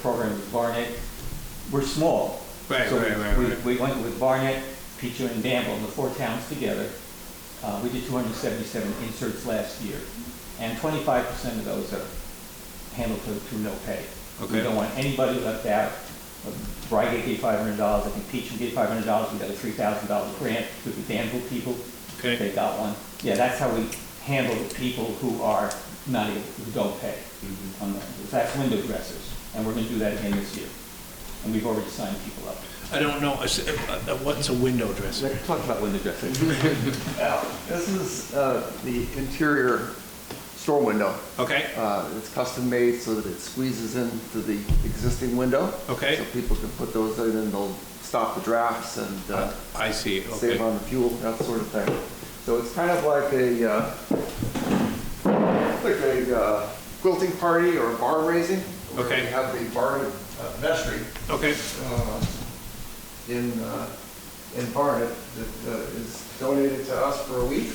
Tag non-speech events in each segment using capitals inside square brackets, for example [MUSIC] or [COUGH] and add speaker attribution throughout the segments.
Speaker 1: program with Barnet. We're small.
Speaker 2: Right,
Speaker 1: So we-
Speaker 2: right, right,
Speaker 1: we-
Speaker 2: right.
Speaker 1: We went with Barnet, Peacher, and Danville, the four towns together. Uh, We did 277 inserts last year, and 25% of those are handled through through no pay. We
Speaker 2: Okay.
Speaker 1: don't want anybody left out. Brygate gave $500, I think Peacher gave $500, we got a $3,000 grant through the Danville people.
Speaker 2: Okay.
Speaker 1: They got one. Yeah, that's how we handle the people who are not, able- who don't pay on the, that's window dressers, and we're gonna do that again this year. And we've already signed people up.
Speaker 2: I don't know, I s- uh, uh, what's a window dresser?
Speaker 1: Let's talk about window dressers.
Speaker 2: [LAUGHS]
Speaker 3: Now, This is uh, the interior store window.
Speaker 2: Okay,
Speaker 3: Uh, It's custom made so that it squeezes into the existing window.
Speaker 2: Okay.
Speaker 3: So people can put those in and they'll stop the drafts and uh,
Speaker 2: I see, okay.
Speaker 3: save on the fuel, that sort of thing. So it's kind of like a, uh, like a uh, quilting party or a bar raising. where
Speaker 2: Okay.
Speaker 3: we have the bar uh, vestry
Speaker 2: Okay,
Speaker 3: uh, in, uh, in Barnet that uh, is donated to us for a week.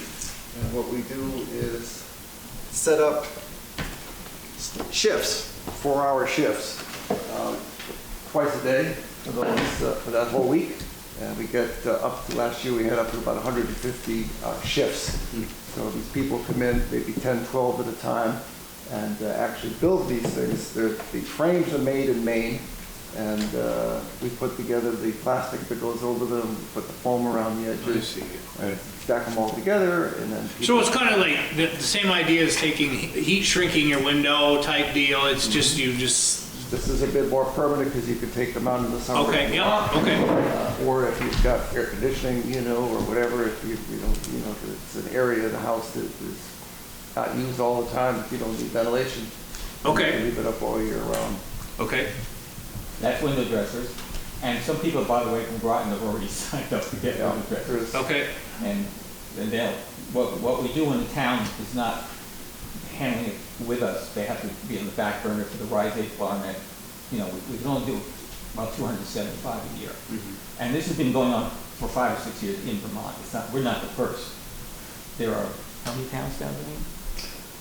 Speaker 3: And what we do is set up shifts, four-hour shifts, uh, twice a day for those, uh, for that whole week. And we get uh, up to, last year, we had up to about 150 uh, shifts. So these people come in, maybe 10, 12 at a time, and uh, actually build these things. They're- The frames are made in Maine, and uh, we put together the plastic that goes over them, we put the foam around the
Speaker 2: I
Speaker 3: edges,
Speaker 2: see.
Speaker 3: and stack them all together, and then.
Speaker 2: So
Speaker 3: people-
Speaker 2: it's kind of like the, the same idea as taking, he- heat shrinking your window type deal, it's just, you just,
Speaker 3: This is a bit more permanent because you can take them out in the summer.
Speaker 2: okay, yeah, okay,
Speaker 3: Uh, Or if you've got air conditioning, you know, or whatever, if you, you don't, you know, if it's an area of the house that is not used all the time, if you don't need ventilation. you
Speaker 2: Okay.
Speaker 3: can Leave it up all year round.
Speaker 2: okay.
Speaker 1: That's window dressers. And some people, by the way, from Groton have already [LAUGHS] signed up to get
Speaker 3: Yeah,
Speaker 1: window dressers.
Speaker 3: there's-
Speaker 2: Okay,
Speaker 1: And, and they'll, what, what we do in the town is not handling it with us. They have to be on the back burner for the Rise Eight Barnet. You know, we, we can only do about two hundred and seventy-five a year.
Speaker 2: Mm-hmm.
Speaker 1: And this has been going on for five or six years in Vermont. It's not, we're not the first. There are, how many towns down there?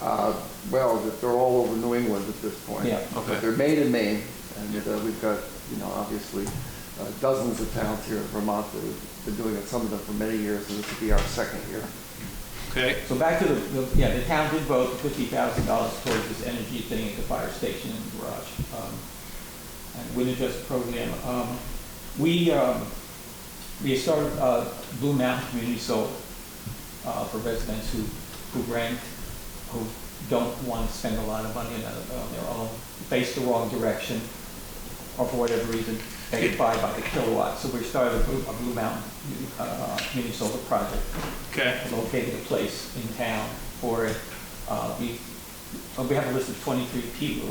Speaker 3: Uh, Well, that they're all over New England at this point.
Speaker 1: Yeah.
Speaker 3: But
Speaker 2: Okay.
Speaker 3: They're made in Maine, and uh, we've got, you know, obviously uh, dozens of towns here in Vermont that have been doing it, some of them for many years, and this will be our second year.
Speaker 2: okay,
Speaker 1: So back to the, the- yeah, the town did vote fifty thousand dollars towards this energy thing at the fire station and the garage. um, And winter just program. Um, We, um, we started uh, Blue Mountain Community Solar uh, for residents who, who rent, who don't want to spend a lot of money on a- on their own, face the wrong direction, or for whatever reason, they can buy by the kilowatt. So we started a Blue a Blue Mountain uh, Community Solar Project
Speaker 2: okay,
Speaker 1: located a place in town for it. Uh, We, uh, we have a list of 23 people,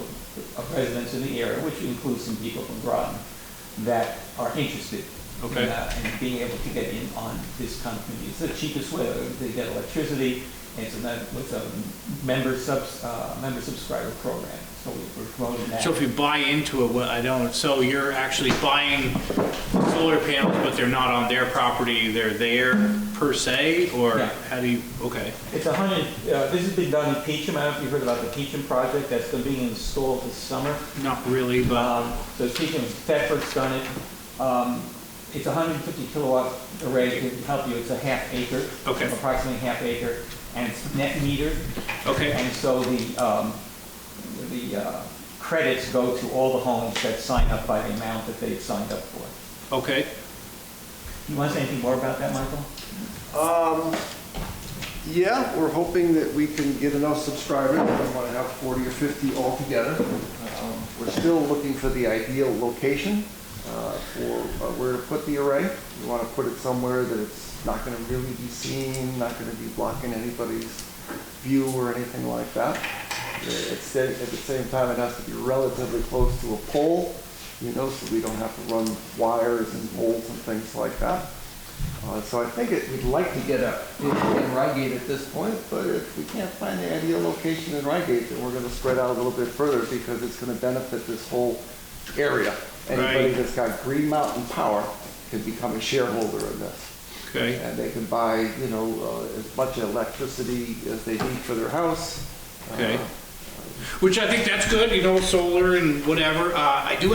Speaker 1: of residents in the area, which includes some people from Groton, that are interested
Speaker 2: Okay.
Speaker 1: in that and being able to get in on this kind of community. It's the cheapest way, they get electricity, and it's a, mem- it's a member subs, uh, member subscriber program, so we- we're promoting that.
Speaker 2: so if you buy into it, what, I don't, so you're actually buying solar panels, but they're not on their property, they're there per se, or
Speaker 1: Yeah.
Speaker 2: how do you, okay,
Speaker 1: It's a hundred, uh, this has been done in Peacham, I don't know if you've heard about the Peacham project, that's going to be installed this summer.
Speaker 2: not really, but,
Speaker 1: Um, So speaking of Thetford's done it, um, it's a hundred and fifty kilowatt array to help you, it's a half acre.
Speaker 2: Okay.
Speaker 1: Approximately half acre, and it's net metered,
Speaker 2: okay,
Speaker 1: and so the, um, the uh, credits go to all the homes that sign up by the amount that they've signed up for.
Speaker 2: okay.
Speaker 1: You want to say anything more about that, Michael?
Speaker 3: Um, yeah, we're hoping that we can get enough subscribers. We want to have 40 or 50 altogether. Um, We're still looking for the ideal location uh, for uh, where to put the array. We want to put it somewhere that it's not going to really be seen, not going to be blocking anybody's view or anything like that. Uh, At sa- at the same time, it has to be relatively close to a pole, you know, so we don't have to run wires and poles and things like that. Uh, So I think it, we'd like to get a, in in Reigate at this point, but if we can't find the ideal location in Reigate, then we're gonna spread out a little bit further because it's gonna benefit this whole area. Anybody
Speaker 2: Right.
Speaker 3: that's got Green Mountain Power can become a shareholder in this.
Speaker 2: Okay.
Speaker 3: And they can buy, you know, uh, as much electricity as they need for their house.
Speaker 2: Okay.
Speaker 3: Uh,
Speaker 2: Which I think that's good, you know, solar and whatever. Uh, I do